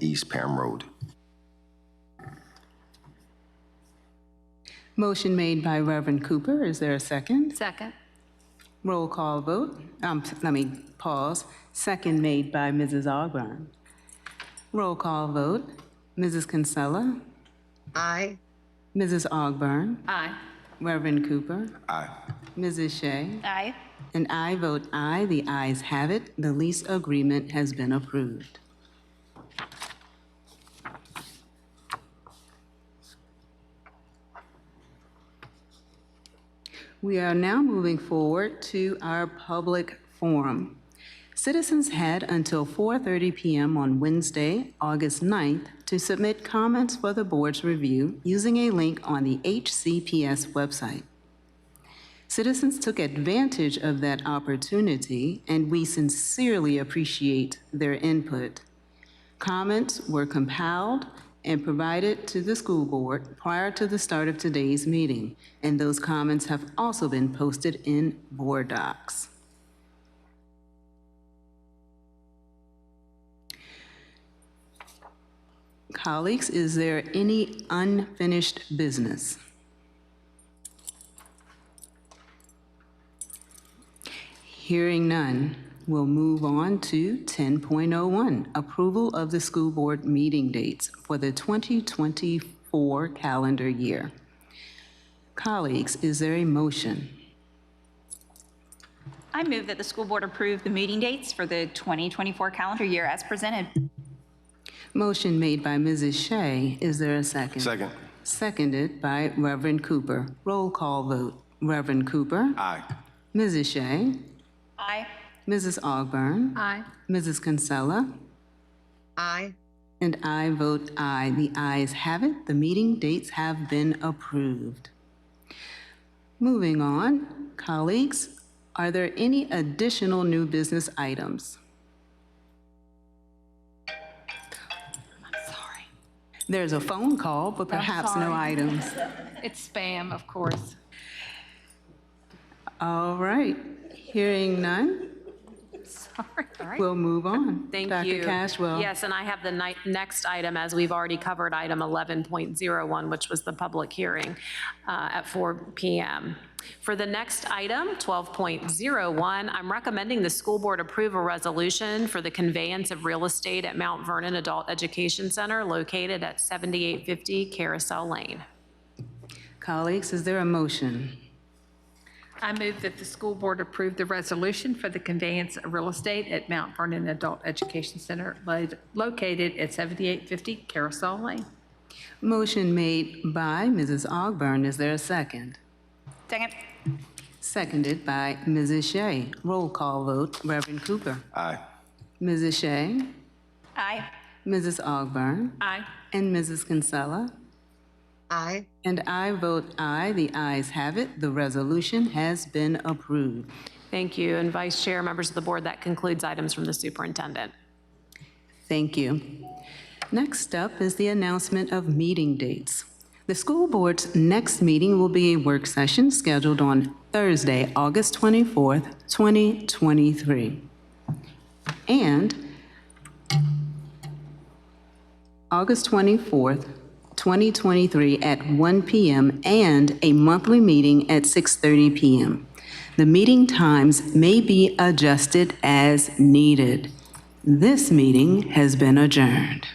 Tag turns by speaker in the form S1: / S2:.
S1: East Pam Road.
S2: Motion made by Reverend Cooper. Is there a second?
S3: Second.
S2: Roll call vote. Um, let me pause. Second made by Mrs. Ogburn. Roll call vote. Mrs. Kinsella.
S4: Aye.
S2: Mrs. Ogburn,
S3: Aye.
S2: Reverend Cooper.
S1: Aye.
S2: Mrs. Shea.
S3: Aye.
S2: And I vote aye. The ayes have it. The lease agreement has been approved. We are now moving forward to our public forum. Citizens had until 4:30 PM on Wednesday, August 9th, to submit comments for the board's review using a link on the HCPS website. Citizens took advantage of that opportunity, and we sincerely appreciate their input. Comments were compiled and provided to the school board prior to the start of today's meeting, and those comments have also been posted in board docs. Colleagues, is there any unfinished business? Hearing none, we'll move on to 10.01, approval of the school board meeting dates for the 2024 calendar year. Colleagues, is there a motion?
S5: I move that the school board approve the meeting dates for the 2024 calendar year as presented.
S2: Motion made by Mrs. Shea, is there a second?
S1: Second.
S2: Seconded by Reverend Cooper. Roll call vote. Reverend Cooper?
S1: Aye.
S2: Mrs. Shea?
S5: Aye.
S2: Mrs. Ogburn,
S3: Aye.
S2: Mrs. Kinsella?
S4: Aye.
S2: And I vote aye. The ayes have it. The meeting dates have been approved. Moving on, colleagues, are there any additional new business items? I'm sorry. There's a phone call, but perhaps no
S3: sorry.
S2: items.
S3: It's spam, of course.
S2: All right. Hearing none, we'll move on.
S6: Thank
S2: Dr.
S6: you.
S2: Cashwell.
S6: Yes, and I have the ni- next item, as we've already covered, item 11.01, which was the public hearing uh, at 4 PM. For the next item, 12.01, I'm recommending the school board approve a resolution for the conveyance of real estate at Mount Vernon Adult Education Center located at 7850 Carousel Lane.
S2: Colleagues, is there a motion?
S3: I move that the school board approve the resolution for the conveyance of real estate at Mount Vernon Adult Education Center lo- located at 7850 Carousel Lane.
S2: Motion made by Mrs. Ogburn. Is there a second?
S5: Second.
S2: Seconded by Mrs. Shea. Roll call vote, Reverend Cooper.
S1: Aye.
S2: Mrs. Shea,
S5: Aye.
S2: Mrs. Ogburn,
S6: Aye.
S2: and Mrs. Kinsella.
S4: Aye.
S2: And I vote aye. The ayes have it. The resolution has been approved.
S6: Thank you. And Vice Chair, members of the board, that concludes items from the superintendent.
S2: Thank you. Next up is the announcement of meeting dates. The school board's next meeting will be a work session scheduled on Thursday, August 24th, 2023. And August 24th, 2023, at 1 PM, and a monthly meeting at 6:30 PM. The meeting times may be adjusted as needed. This meeting has been adjourned.